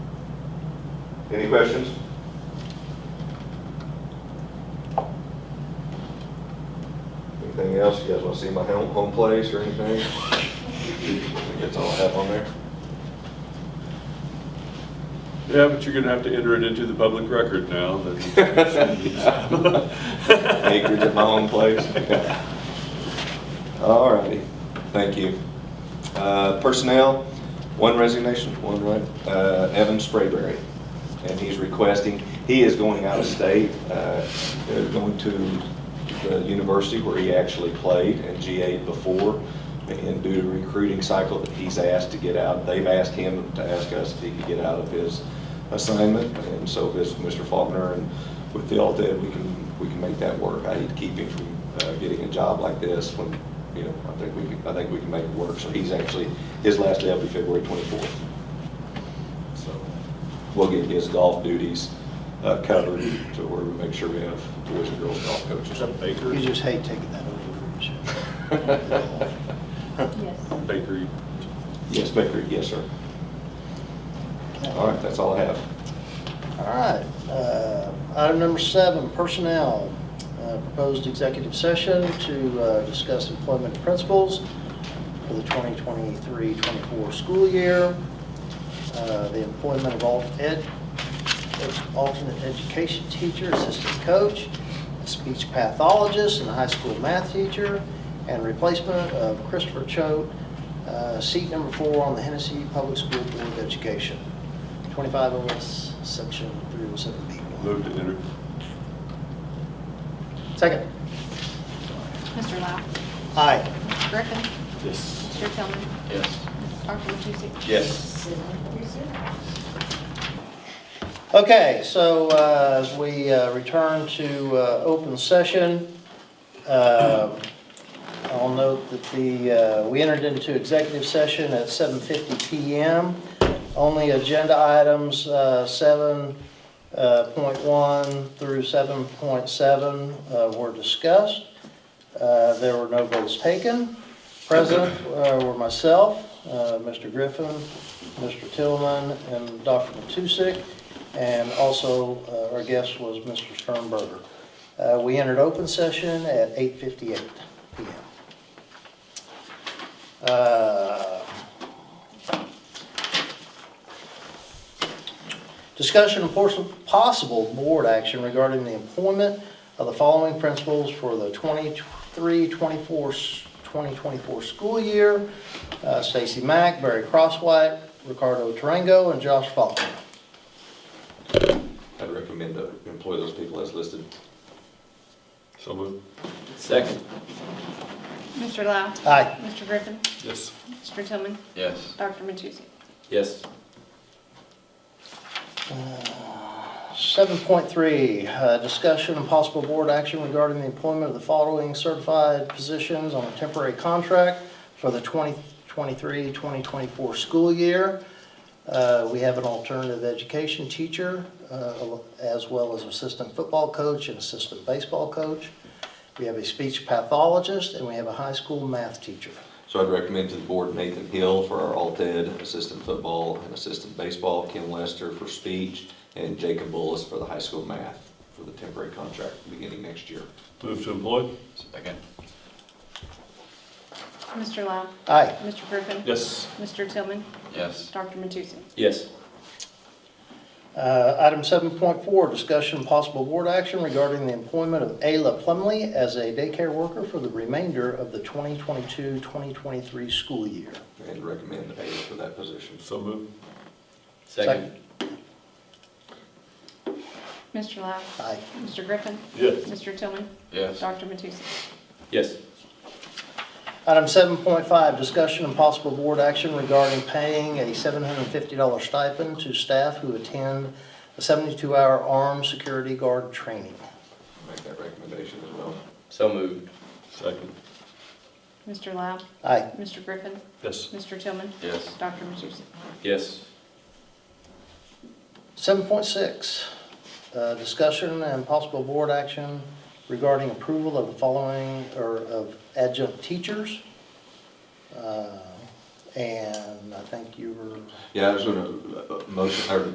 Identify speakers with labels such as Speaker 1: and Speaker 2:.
Speaker 1: Any questions? Anything else? You guys want to see my home, home place or anything? I think that's all I have on there.
Speaker 2: Yeah, but you're gonna have to enter it into the public record now. that-
Speaker 1: Acreage at my home place. All righty, thank you. Uh, Personnel, one resignation, one, right, Uh, Evan Sprayberry. And he's requesting, he is going out of state, uh, they're going to the university where he actually played and GA'd before. And due to recruiting cycle that he's asked to get out, they've asked him to ask us if he could get out of his assignment. And so this, Mr. Faulkner, and with the all dead, we can, we can make that work. I need to keep him from uh, getting a job like this when, you know, I think we can, I think we can make it work. So he's actually, his last day will be February 24th. So we'll get his golf duties uh, covered to where we make sure we have boys and girls golf
Speaker 2: Is
Speaker 1: coaches.
Speaker 2: that Baker?
Speaker 3: You just hate taking that over.
Speaker 4: Yes.
Speaker 2: Bakery.
Speaker 1: Yes, Baker, yes, sir. All right, that's all I have.
Speaker 3: All right, uh, item number seven, personnel. Uh, Proposed executive session to uh, discuss employment principles for the 2023-24 school year, uh, the employment of alt ed, alternate education teacher, assistant coach, speech pathologist, and high school math teacher, and replacement of Christopher Choate, uh, seat number four on the Hennessy Public School Board of Education. 25 OS, section 307B1.
Speaker 2: Move to enter.
Speaker 3: Second.
Speaker 4: Mr. Lau.
Speaker 3: Aye.
Speaker 4: Mr. Griffin.
Speaker 2: Yes.
Speaker 4: Mr. Tillman.
Speaker 2: Yes.
Speaker 4: Mrs. Parker Matusi.
Speaker 1: Yes.
Speaker 3: Okay, so uh, as we uh, return to uh, open session, um, I'll note that the, uh, we entered into executive session at 7:50 PM. Only agenda items uh, 7.1 through 7.7 uh, were discussed. Uh, There were no votes taken. Present uh, were myself, uh, Mr. Griffin, Mr. Tillman, and Dr. Matusek, and also uh, our guest was Mr. Sternberger. Uh, We entered open session at 8:58 PM. Uh, Discussion of pos- possible board action regarding the employment of the following principals for the 23, 24, 2024 school year. Uh, Stacy Mack, Barry Crosswhite, Ricardo Tarango, and Josh Faulkner.
Speaker 1: I'd recommend to employ those people as listed.
Speaker 2: So move.
Speaker 5: Second.
Speaker 4: Mr. Lau.
Speaker 3: Aye.
Speaker 4: Mr. Griffin.
Speaker 2: Yes.
Speaker 4: Mr. Tillman.
Speaker 5: Yes.
Speaker 4: Dr. Matusi.
Speaker 5: Yes.
Speaker 3: 7.3, uh, discussion and possible board action regarding the employment of the following certified positions on a temporary contract for the 2023-2024 school year. Uh, We have an alternative education teacher, uh, as well as assistant football coach and assistant baseball coach. We have a speech pathologist, and we have a high school math teacher.
Speaker 1: So I'd recommend to the board Nathan Hill for our alt ed, assistant football and assistant baseball, Kim Lester for speech, and Jacob Bullis for the high school math for the temporary contract beginning next year.
Speaker 2: Move to employ.
Speaker 5: Second.
Speaker 4: Mr. Lau.
Speaker 3: Aye.
Speaker 4: Mr. Griffin.
Speaker 2: Yes.
Speaker 4: Mr. Tillman.
Speaker 5: Yes.
Speaker 4: Dr. Matusi.
Speaker 5: Yes.
Speaker 3: Uh, Item 7.4, discussion and possible board action regarding the employment of Ayla Plumley as a daycare worker for the remainder of the 2022-2023 school year.
Speaker 1: And recommend A for that position.
Speaker 2: So move.
Speaker 5: Second.
Speaker 4: Mr. Lau.
Speaker 3: Aye.
Speaker 4: Mr. Griffin.
Speaker 2: Yes.
Speaker 4: Mr. Tillman.
Speaker 5: Yes.
Speaker 4: Dr. Matusi.
Speaker 5: Yes.
Speaker 3: Item 7.5, discussion and possible board action regarding paying a $750 stipend to staff who attend a 72-hour armed security guard training.
Speaker 1: Make that recommendation as well.
Speaker 5: So moved.
Speaker 2: Second.
Speaker 4: Mr. Lau.
Speaker 3: Aye.
Speaker 4: Mr. Griffin.
Speaker 2: Yes.
Speaker 4: Mr. Tillman.
Speaker 5: Yes.
Speaker 4: Dr. Matusi.
Speaker 5: Yes.
Speaker 3: 7.6, uh, discussion and possible board action regarding approval of the following, or of adjunct teachers. Uh, And I think you were
Speaker 1: Yeah, I was gonna, uh, uh, motion, or